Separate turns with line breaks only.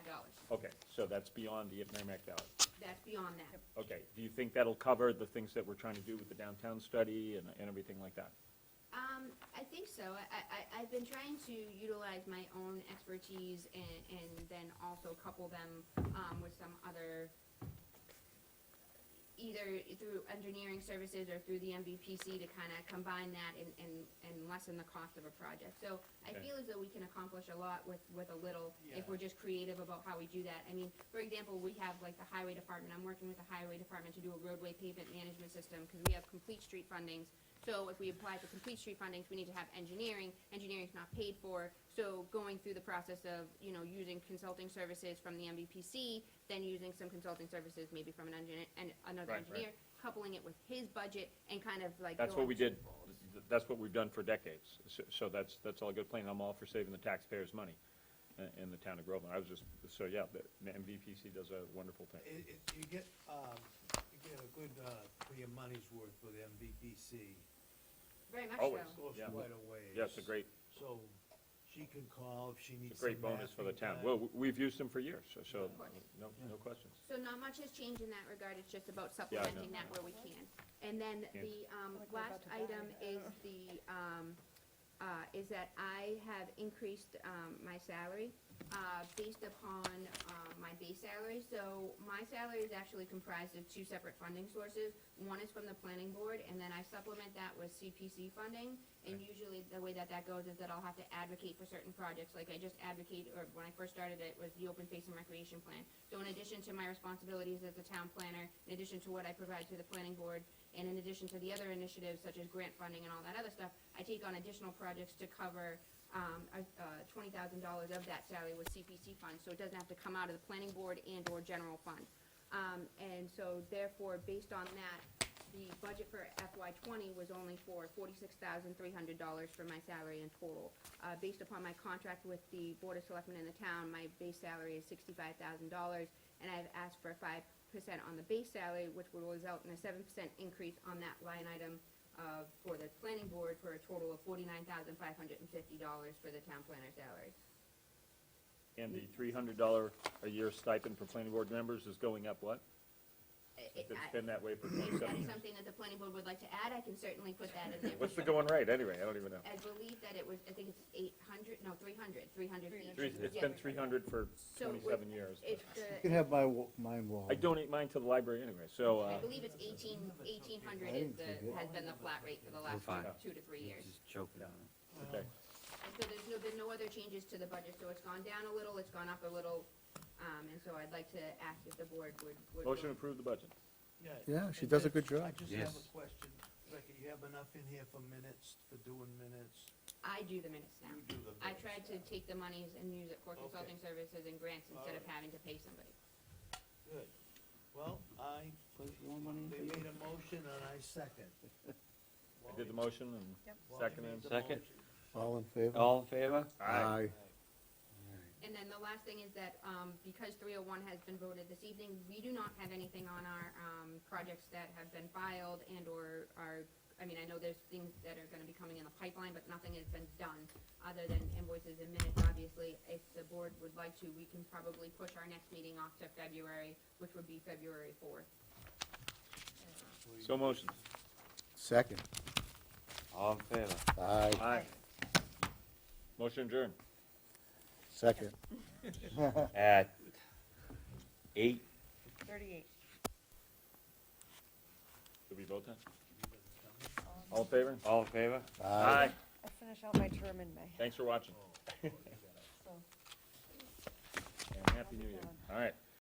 So that's beyond the Merrimack Valley.
That's beyond that.
Okay, do you think that'll cover the things that we're trying to do with the downtown study and, and everything like that?
Um, I think so. I, I- I, I've been trying to utilize my own expertise and, and then also couple them, um, with some other, either through engineering services or through the MVPC to kind of combine that and, and, and lessen the cost of a project. So I
Okay.
feel as though we can accomplish a lot with, with a little,
Yeah.
if we're just creative about how we do that. I mean, for example, we have like the highway department, I'm working with the highway department to do a roadway pavement management system, because we have complete street fundings. So if we apply for complete street fundings, we need to have engineering, engineering's not paid for. So going through the process of, you know, using consulting services from the MVPC, then using some consulting services maybe from an engineer, and another
Right, right.
engineer, coupling it with his budget and kind of like.
That's
go
what
up
we did,
twofold.
that's what we've done for decades. So, so that's, that's all a good plan. I'm all for saving the taxpayers' money in, in the town of Groveland. I was just, so yeah, the MVPC does a wonderful thing.
It, it, you get, um, you get a good, uh, for your money's worth with MVPC.
Very much
Always.
so.
Goes
Yeah.
quite a ways.
Yeah, it's a great,
So she can call if she needs
it's a great
some
bonus for the
mapping
town.
done.
Well, w- we've used them for years, so- so,
Of course.
no, no questions.
So not much has changed in that regard, it's just about
know.
supplementing that where we can. And then
Yeah.
the, um,
Like we're
last
about to
item
die.
is the, um, uh, is that I have increased, um, my salary, uh, based upon, um, my base salary. So my salary is actually comprised of two separate funding sources. One is from the planning board, and then I supplement that with CPC funding. And usually the way that that goes is that I'll have to advocate for certain projects, like I just advocate, or when I first started it, was the open space and recreation plan. So in addition to my responsibilities as a town planner, in addition to what I provide to the planning board, and in addition to the other initiatives such as grant funding and all that other stuff, I take on additional projects to cover, um, uh, twenty thousand dollars of that salary with CPC funds, so it doesn't have to come out of the planning board and or general fund. Um, and so therefore, based on that, the budget for FY twenty was only for forty-six thousand three hundred dollars for my salary in total. Uh, based upon my contract with the Board of Selectmen in the town, my base salary is sixty-five thousand dollars, and I've asked for a five percent on the base salary, which will result in a seven percent increase on that line item, uh, for the planning board for a total of forty-nine thousand five hundred and fifty dollars for the town planner salary.
And the three hundred dollar a year stipend for planning board members is going up what?
I- I-
If it's been that way for
If that
twenty-seven
is
years.
something that the planning board would like to add, I can certainly put that in there.
What's the going rate anyway? I don't even know.
I believe that it was, I think it's eight hundred, no, three hundred, three hundred feet.
Three- It's been three hundred for
So it was-
twenty-seven years. but-
It's
You
the,
can have my, wa- mine wall.
I donate mine to the library anyway, so,
I
uh,
believe it's eighteen, eighteen hundred
I
is
didn't think
the,
it-
has been the flat rate for the last
fine.
two to three years.
Just choking on it.
okay.
And so there's no, been no other changes to the budget, so it's gone down a little, it's gone up a little, um, and so I'd like to ask if the board would, would.
Motion to approve the budget.
Yeah,
and
she does a
then
good
I
job.
just have
Yes.
a question. Rebecca, you have enough in here for minutes, for doing minutes?
I do the minutes now.
You do the
I
minutes.
tried to take the monies and use it for consulting services and grants instead of
Alright.
having to pay somebody.
Good. Well, I, they made a motion and I second.
I did the motion and
Wally
second and
made the
Second.
motion.
All in favor?
All in favor?
Aye.
And then the last thing is that, um, because three oh one has been voted this evening, we do not have anything on our, um, projects that have been filed and or are, I mean, I know there's things that are gonna be coming in the pipeline, but nothing has been done, other than invoices and minutes, obviously. If the board would like to, we can probably push our next meeting off to February, which would be February fourth.
So motion.
Second.
All in favor?
Aye,
Aye. Motion adjourned.
second.
At eight,
Thirty-eight.
Did we vote that? All in favor?
all in favor?
Aye.
I'll finish out my term in May,
Thanks for watching
so.
and happy new year. All right.